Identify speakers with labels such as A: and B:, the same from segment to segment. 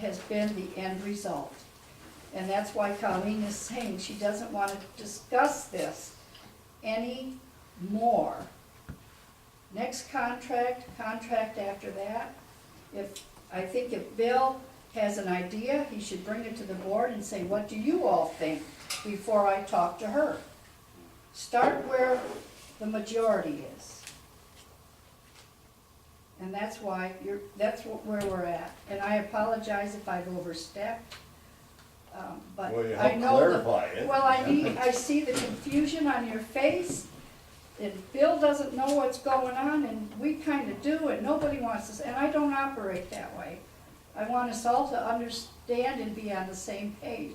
A: has been the end result. And that's why Colleen is saying she doesn't want to discuss this any more. Next contract, contract after that, if, I think if Bill has an idea, he should bring it to the board and say, what do you all think, before I talk to her. Start where the majority is. And that's why you're, that's wh- where we're at. And I apologize if I've overstepped, um, but
B: Well, you
A: I
B: helped
A: know that.
B: clarify it.
A: Well, I need, I see the confusion on your face. And Bill doesn't know what's going on and we kinda do and nobody wants us, and I don't operate that way. I want us all to understand and be on the same page.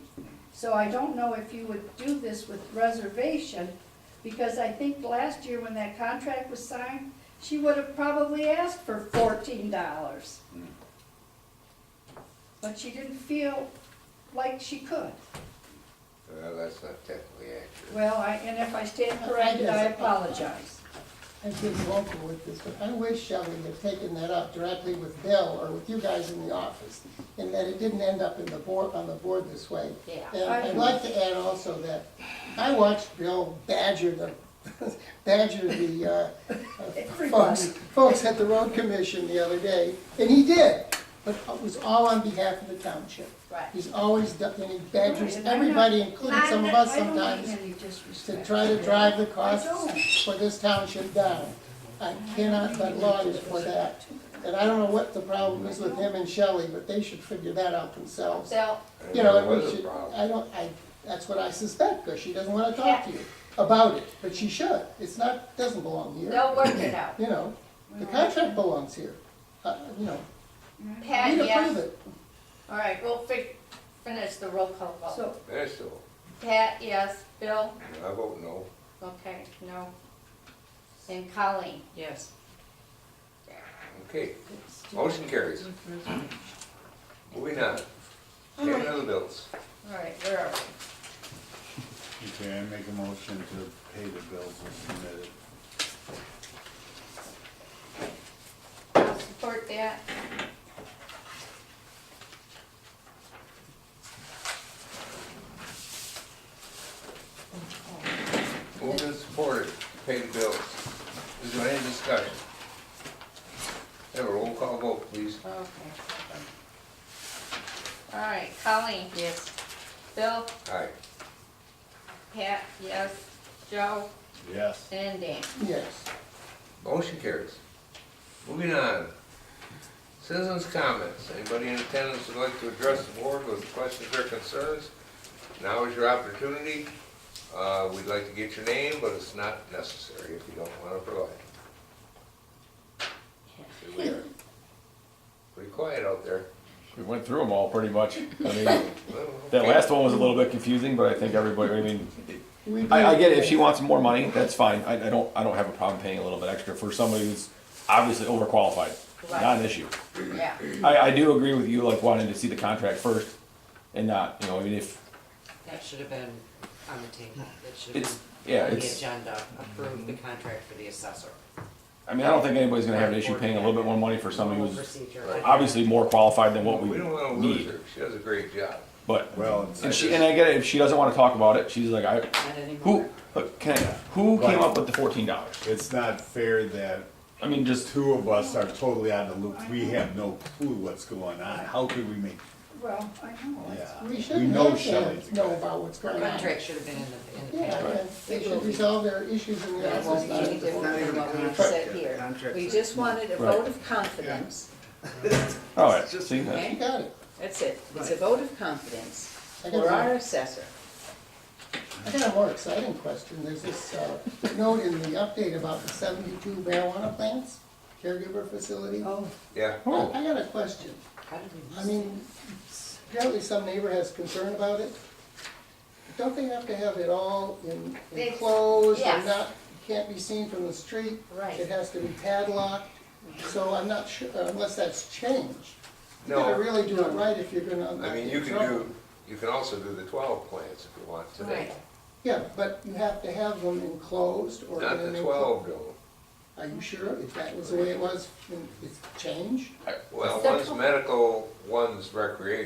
A: So I don't know if you would do this with reservation, because I think last year when that contract was signed, she would have probably asked for fourteen dollars. But she didn't feel like she could.
C: Well, that's not technically accurate.
A: Well, I, and if I stand corrected, I apologize.
D: I've been vocal with this, but I wish Shelley had taken that up directly with Bill or with you guys in the office, and that it didn't end up in the board, on the board this way.
E: Yeah.
D: And I'd like to add also that I watched Bill badger the, badger the, uh, uh, folks, folks at the road commission the other day, and he did, but it was all on behalf of the township.
E: Right.
D: He's always done, and he
A: Right,
D: badgers
A: and I'm not-
D: everybody, including some of us
A: I don't mean
D: sometimes
A: any
D: to
A: disrespect.
D: try to drive the costs
A: I don't.
D: for this township down. I cannot let lawyers for that. And I don't know what the problem is with him and Shelley, but they should figure that out themselves.
E: So,
D: You know,
C: There
D: and
C: was
D: we
C: a
D: should,
C: problem.
D: I don't, I, that's what I suspect, because she doesn't want to talk to you about it, but she should. It's not, doesn't belong here,
E: they'll work it out.
D: you know. The contract belongs here, uh, you know,
E: Pat,
D: we approve
E: yes.
D: it.
E: All right, we'll fi- finish the roll call vote.
A: So,
C: That's all.
E: Pat, yes. Bill?
C: I vote no.
E: Okay, no. And Colleen?
F: Yes.
C: Okay, motion carries. Moving on. Payment of the bills.
E: All right, where are we?
B: Okay, I make a motion to pay the bills as submitted.
E: I'll support that.
C: Moved and supported, pay the bills. Is there any discussion? Have a roll call vote, please.
E: Okay. All right, Colleen? Yes. Bill?
C: Aye.
E: Pat, yes. Joe?
B: Yes.
E: And Dan?
D: Yes.
C: Motion carries. Moving on. Citizens' comments. Anybody in attendance would like to address the board with questions or concerns? Now is your opportunity. Uh, we'd like to get your name, but it's not necessary if you don't want to provide. Here we are. Pretty quiet out there.
G: We went through them all pretty much. I mean, that
C: Well,
G: last one was a little bit confusing, but I think everybody. I mean,
D: We
G: I, I get it. If
D: do.
G: she wants more money, that's fine. I, I don't. I don't have a problem paying a little bit extra for somebody who's obviously overqualified. Not an issue.
E: Yeah.
G: I, I do agree with you, like wanting to see the contract first, and not you know. I mean, if
F: That should have been on the table. That should
G: it's
F: have been
G: yeah,
F: on the
G: it's.
F: agenda, approve the
D: Mhm.
F: contract for the assessor.
G: I mean, I don't think anybody's gonna have an issue paying a little bit more money for somebody
F: Normal
G: who's
F: procedure.
G: obviously more qualified than what
C: We
G: we
C: don't want to lose
G: need.
C: her. She does a great job.
G: But
B: Well,
G: and she and I get it. If she doesn't want to talk about it, she's like, I
F: Not anymore.
G: who look, can I, who came up with the fourteen dollars?
B: it's not fair that
G: I mean, just
B: two of us are totally out of the loop. We have no clue what's going on. How could we make,
A: well, I know, it's-
B: yeah.
D: We
B: We
D: shouldn't
B: know
D: have
B: Shelley's
D: to
B: a
D: know
B: guy.
D: about what's
F: Her
D: going on.
F: contract should have been in the, in the
D: Yeah,
F: paper.
D: yeah, they should resolve their ishes in the
H: That won't
D: office,
H: be
D: not
H: any
D: at the board.
H: different than what we've said here. We just wanted a vote of confidence.
G: all right. Oh, See, that's-
H: Okay?
D: You got it.
H: That's it. It's a vote of confidence
D: I
H: for our
D: got
H: assessor.
D: a, I got a more exciting question. There's this, uh, note in the update about the seventy-two marijuana plants, caregiver facility. I
A: oh,
C: Yeah.
D: I got a question.
F: How did we miss
D: I mean, apparently some neighbor has concern about it. Don't they have to have it all in
E: They-
D: enclosed
E: yes.
D: and not, can't be seen from the street?
E: Right.
D: It has to be padlocked, so I'm not sure, unless that's changed. You gotta
C: No,
D: really do it right if you're gonna
C: I
D: unlock
C: mean, you
D: the
C: can
D: trouble.
C: do, you can also do the twelve plants if you want today.
E: Right.
D: Yeah, but you have to have them enclosed or.
C: Not
D: in an
C: the
D: enclo-
C: twelve, though.
D: Are you sure if that was the way it was, and it's changed?
C: Well, one's medical, one's recreation.